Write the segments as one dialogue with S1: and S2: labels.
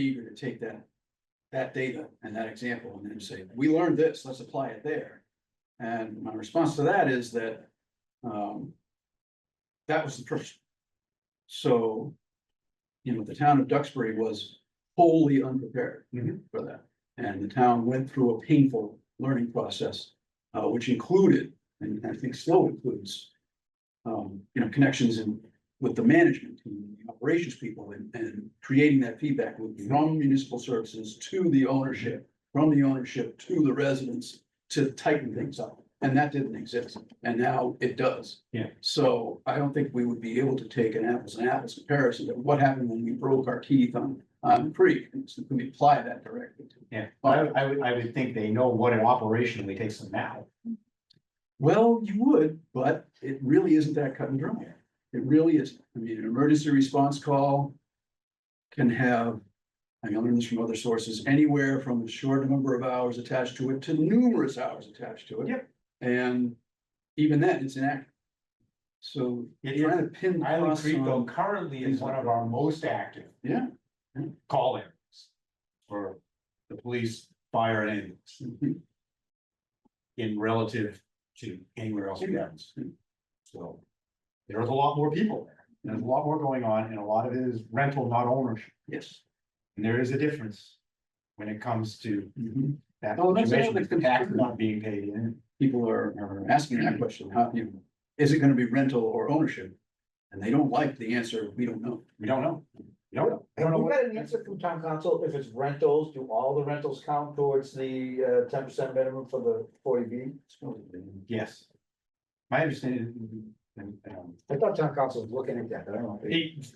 S1: eager to take that, that data and that example and then say, we learned this, let's apply it there. And my response to that is that, um, that was the person. So, you know, the town of Duxbury was wholly unprepared
S2: Mhm.
S1: for that. And the town went through a painful learning process, uh, which included, and I think still includes, um, you know, connections in, with the management team, the operations people, and, and creating that feedback loop from municipal services to the ownership, from the ownership to the residents to tighten things up. And that didn't exist, and now it does.
S2: Yeah.
S1: So I don't think we would be able to take an apples and apples comparison to what happened when we broke our teeth on, on Creek. And so can we apply that directly to?
S2: Yeah, but I, would- I would, I would think they know what it operationally takes them now.
S1: Well, you would, but it really isn't that cut and dry. It really is. I mean, an emergency response call can have, I learned this from other sources, anywhere from a short number of hours attached to it to numerous hours attached to it.
S2: Yep.
S1: And even then, it's inaccurate. So
S2: It
S1: trying to pin. the
S2: Island
S1: costs
S2: Creek though
S1: on-
S2: currently is one of our most active
S1: Yeah.
S2: call areas. For the police, fire and ambulance
S1: Mhm.
S2: in relative to anywhere else in towns. So there's a lot more people there. There's a lot more going on and a lot of it is rental, not ownership.
S1: Yes.
S2: And there is a difference when it comes to
S1: Mhm.
S2: that
S1: Oh, that's
S2: situation,
S1: another
S2: the tax
S1: concern.
S2: not being paid in.
S1: People are, are asking that question, how do you, is it gonna be rental or ownership? And they don't like the answer, we don't know.
S2: We don't know. We don't know. I
S3: Have
S2: don't know
S3: we
S2: what.
S3: got an answer from town council, if it's rentals, do all the rentals count towards the uh, ten percent minimum for the forty B?
S2: Yes. My understanding, um,
S3: I thought town council was looking at that, but I don't know.
S2: it-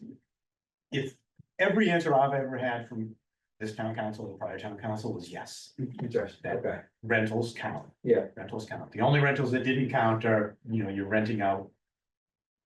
S2: if every answer I've ever had from this town council, the prior town council was yes.
S3: Interesting, okay,
S2: rentals count.
S3: Yeah.
S2: Rentals count. The only rentals that didn't count are, you know, you're renting out.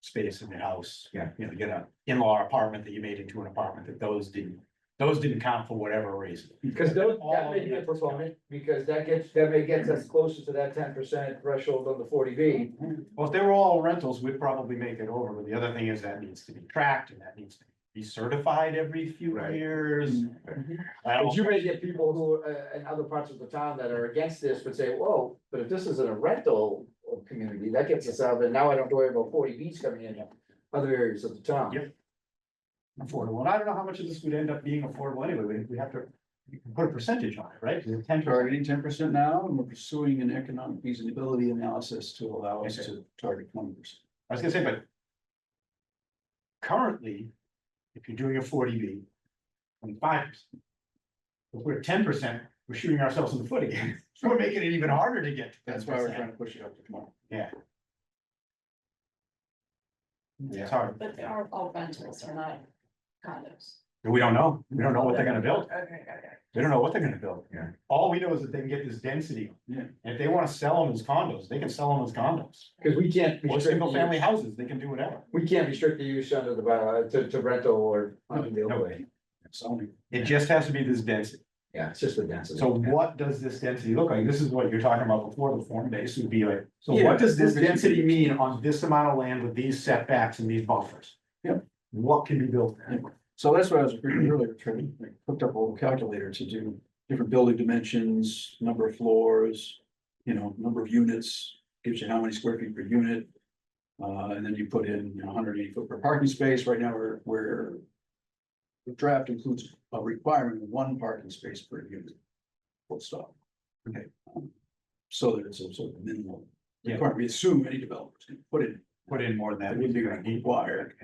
S2: Space in your house.
S3: Yeah.
S2: You know, you get an in-law apartment that you made into an apartment that those didn't, those didn't count for whatever reason.
S3: because those, that
S2: All
S3: may
S2: of
S3: be a
S2: that.
S3: performance, because that gets, that may get us closer to that ten percent threshold on the forty B.
S2: Well, if they were all rentals, we'd probably make it over, but the other thing is that needs to be tracked and that needs to be certified every few
S3: Right.
S2: years.
S1: Mm-hmm.
S2: I don't-
S3: But you may get people who are uh, in other parts of the town that are against this, would say, whoa, but if this isn't a rental of community, that gets us out, and now I don't have to worry about forty Bs coming in. Other areas of the town.
S2: Yep. Affordable, and I don't know how much of this would end up being affordable anyway, we, we have to we can put a percentage on it, right? Is it Ten percent?
S1: targeting ten percent now, and we're pursuing an economic feasibility analysis to allow us
S2: Okay.
S1: to target twenty percent.
S2: I was gonna say, but. Currently, if you're doing a forty B, twenty-five percent. If we're ten percent, we're shooting ourselves in the foot again, so we're making it even harder to get. to
S1: That's why we're
S2: 10%.
S1: trying to push it up to tomorrow.
S2: It's hard,
S4: But they are all rentals, they're not condos.
S2: And we don't know, we don't know what they're gonna build, they don't know what they're gonna build.
S3: Yeah.
S2: All we know is that they can get this density.
S1: Yeah.
S2: And If they wanna sell them as condos, they can sell them as condos,
S3: Cause we can't.
S2: or
S3: restrict
S2: single
S3: the-
S2: family houses, they can do whatever.
S3: We can't restrict the use under the, bylaw to, to rental or under the overlay.
S1: So,
S2: It just has to be this density.
S3: Yeah, it's just the density.
S2: So what does this density look like? This is what you're talking about before, the form base would be like, so
S1: Yeah.
S2: what does this density mean on this amount of land with these setbacks and these buffers?
S1: Yep.
S2: What can be built there?
S1: so that's what I was reading earlier, trying, I hooked up a little calculator to do different building dimensions, number of floors, you know, number of units, gives you how many square feet per unit. Uh, and then you put in, you know, hundred eighty foot per parking space, right now we're, we're the draft includes a requirement of one parking space per unit. Full stop.
S2: Okay.
S1: Um, So that it's a sort of minimal
S2: Yeah.
S1: requirement, we assume any developers can put it,
S2: Put in more
S1: that
S2: than
S1: would be
S2: that.
S1: required.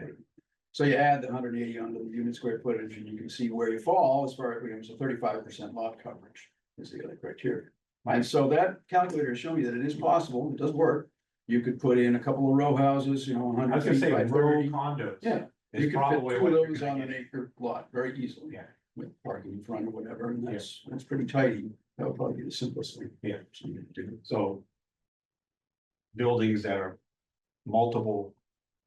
S1: So you add the hundred eighty onto the unit square footage and you can see where you fall as far as, you know, so thirty-five percent lot coverage is the other criteria. And so that calculator showed me that it is possible, it does work. You could put in a couple of row houses, you know,
S2: I
S1: hundred
S2: was gonna
S1: feet
S2: say
S1: by
S2: rural
S1: thirty.
S2: condos.
S1: Yeah.
S2: Is
S1: You could fit
S2: probably
S1: two
S2: what
S1: of
S2: you're
S1: those
S2: gonna
S1: on
S2: get.
S1: an acre lot very easily.
S2: Yeah.
S1: With parking in front or whatever, and that's, that's pretty tidy. That would probably be the simplest thing.
S2: Yeah.
S1: Something to do.
S2: So. Buildings that are multiple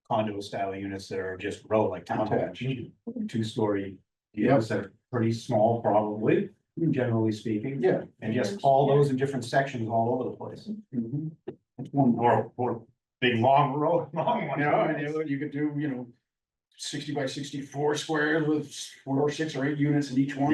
S2: condo style units that are just row like
S1: Attached.
S2: townhouse, two story.
S1: Yep.
S2: units that are pretty small probably, generally speaking.
S1: Yeah.
S2: And just all those in different sections all over the place,
S1: mhm. That's one more.
S2: or, or big long row, long one.
S1: You know, and you- you could do, you know, sixty by sixty-four squares with four or six or eight units in each one.